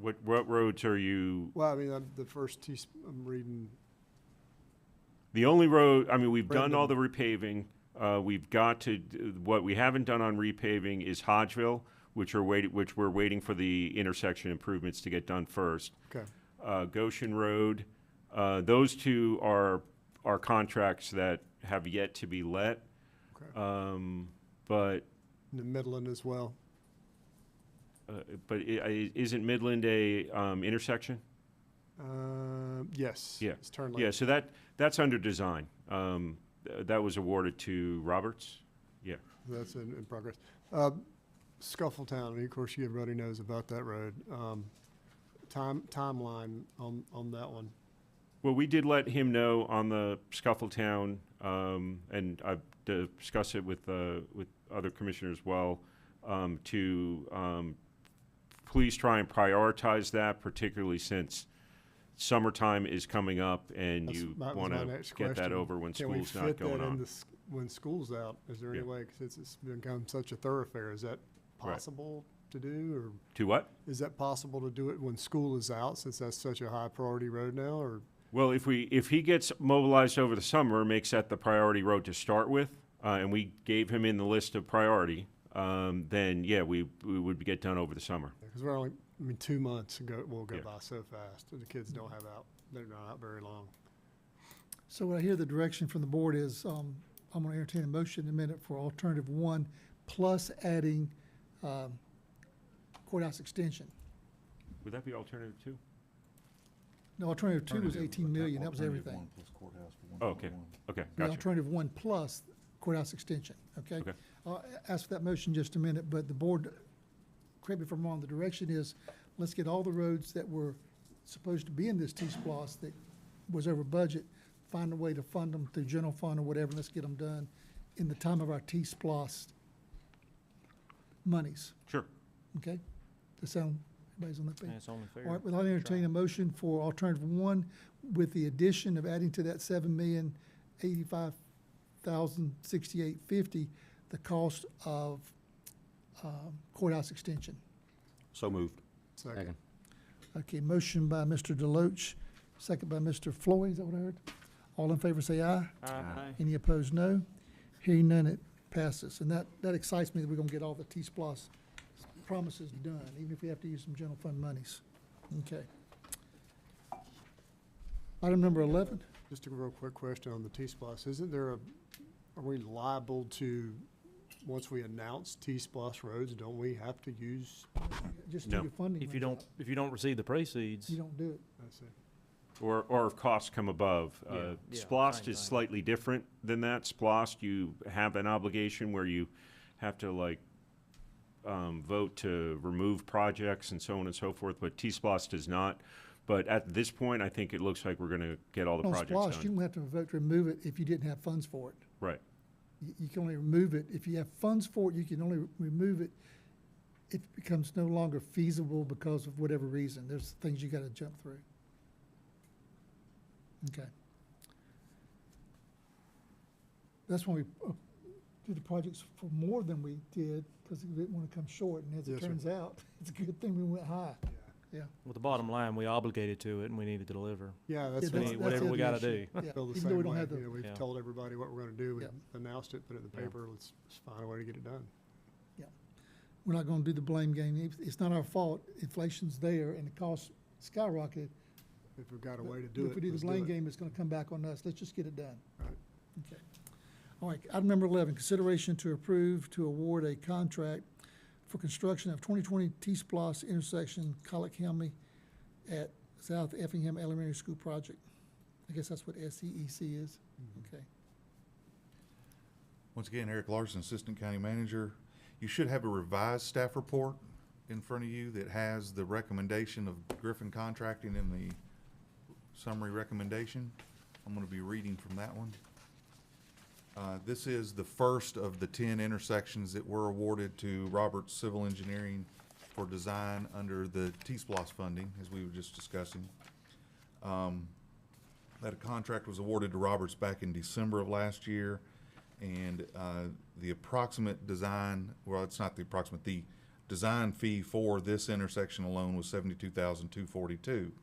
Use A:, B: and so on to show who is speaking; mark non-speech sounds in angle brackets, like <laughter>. A: What, what roads are you,
B: Well, I mean, I'm, the first T, I'm reading,
A: the only road, I mean, we've done all the
B: Brendan.
A: repaving. Uh, we've got to, d- what we haven't done on repaving is Hodgeville, which are waiting, which we're waiting for the intersection improvements to get done first.
B: okay,
A: uh, Goshen Road. Uh, Those two are, are contracts that have yet to be let.
B: Okay.
A: Um, But,
B: in the Midland as well.
A: uh, but i- i- isn't Midland a um, intersection?
B: Um, yes.
A: Yeah.
B: It's turn lane.
A: Yeah, so that, that's under design. Um, th- That was awarded to Roberts. Yeah.
B: That's in, in progress. Uh, Scuffletown, and of course, you- everybody knows about that road. Um, time, timeline on, on that one.
A: Well, we did let him know on the Scuffletown, um, and I've discussed it with, uh, with other commissioners as well, um, to, um, please try and prioritize that, particularly since summertime is coming up and
B: That's-
A: you
B: that was
A: want
B: my
A: to
B: next
A: get that
B: question.
A: over when
B: Can we
A: school's not
B: fit that
A: going
B: in
A: on.
B: the s- When school's out, is there any
A: Yeah.
B: way, because it's, it's become such a thoroughfare, is that
A: Right.
B: possible to do? Or
A: To what?
B: is that possible to do it when school is out, since that's such a high priority road now, or?
A: Well, if we, if he gets mobilized over the summer, makes that the priority road to start with, uh, and we gave him in the list of priority, um, then yeah, we, we would get done over the summer.
B: Because we're only, I mean, two months go, will go
A: Yeah.
B: by so fast, and the kids don't have out, they're not out very long.
C: So what I hear the direction from the board is, um, I'm gonna entertain a motion in a minute for alternative one, plus adding, um, courthouse extension.
A: Would that be alternative two?
C: No, alternative two was
D: Alternative-
C: eighteen million, that was
D: alternative
C: everything.
D: one plus courthouse for
A: Oh, okay.
D: 1.1.
A: Okay,
C: The
A: gotcha.
C: Alternative one plus courthouse extension, okay?
A: Okay.
C: I'll ask for that motion in just a minute, but the board, correct me if I'm wrong, the direction is, let's get all the roads that were supposed to be in this T-Splosh that was over budget, find a way to fund them through general fund or whatever, let's get them done in the time of our T-Splosh monies,
A: Sure.
C: okay? Does that sound, everybody's on that page?
E: It's only fair.
C: All right, well, I'll entertain a motion for alternative one with the addition of adding to that seven million eighty-five thousand sixty-eight fifty, the cost of um, courthouse extension.
F: So moved.
B: Second.
C: Okay, motion by Mr. Deloach, second by Mr. Floyd, is that what I heard? All in favor say aye.
E: Aye.
C: Any opposed, no. Hearing none, it passes. And that, that excites me that we're gonna get all the T-Splosh promises done, even if we have to use some general fund monies. Okay. Item number eleven,
B: Just a real quick question on the T-Splosh, isn't there a, are we liable to, once we announce T-Splosh roads, don't we have to use?
C: just do
A: No.
C: your funding.
E: If
C: runs
E: you don't,
C: out.
E: if you don't receive the proceeds,
C: You don't do it.
B: I see.
A: Or, or if costs come above.
E: Yeah,
A: Uh,
E: yeah,
A: Splost
E: same
A: is
E: thing.
A: slightly different than that. Splost, you have an obligation where you have to like, um, vote to remove projects and so on and so forth, but T-Splost does not. But at this point, I think it looks like we're gonna get all the
C: On
A: projects
C: Splosh, you
A: done.
C: don't have to vote to remove it if you didn't have funds for it.
A: Right.
C: You, you can only remove it, if you have funds for it, you can only re- remove it if it becomes no longer feasible because of whatever reason. There's things you gotta jump through. Okay. That's when we uh, did the projects for more than we did, because we didn't wanna come short, and as it
B: Yes, sir.
C: turns out, <laughs> it's a good thing we went high. Yeah.
E: with the bottom line, we obligated to it and we need to deliver.
B: Yeah,
C: Yeah,
B: that's
E: So
B: what
E: we
B: I
E: need whatever
C: the
E: we gotta
C: issue.
E: do.
C: Yeah,
B: <laughs> feel the
C: even though we
B: same
C: don't
B: way,
C: have the-
B: you know, we've
E: Yeah.
B: told everybody what we're gonna do, we
C: Yeah.
B: announced it, put it in the
E: Yeah.
B: paper, let's, let's find a way to get it done.
C: we're not gonna do the blame game. It's- It's not our fault. Inflation's there and the costs skyrocketed.
B: If we've got a
C: But-
B: way to
C: but
B: do it,
C: If we do the
B: let's
C: blame
B: it.
C: game, it's gonna come back on us. Let's just get it done.
B: Right.
C: Okay. All right, item number eleven, consideration to approve to award a contract for construction of twenty twenty T-Splosh intersection, Colic Helmy at South Effingham Elementary School project. I guess that's what SEEC is.
B: Mm-hmm.
C: Okay.
D: Once again, Eric Larson, Assistant County Manager. You should have a revised staff report in front of you that has the recommendation of Griffin Contracting in the summary recommendation. I'm going to be reading from that one. Uh, This is the first of the 10 intersections that were awarded to Roberts Civil Engineering for design under the T-Splosh funding, as we were just discussing. Um, That contract was awarded to Roberts back in December of last year. And uh, the approximate design, well, it's not the approximate, the design fee for this intersection alone was seventy-two thousand two forty-two. dollars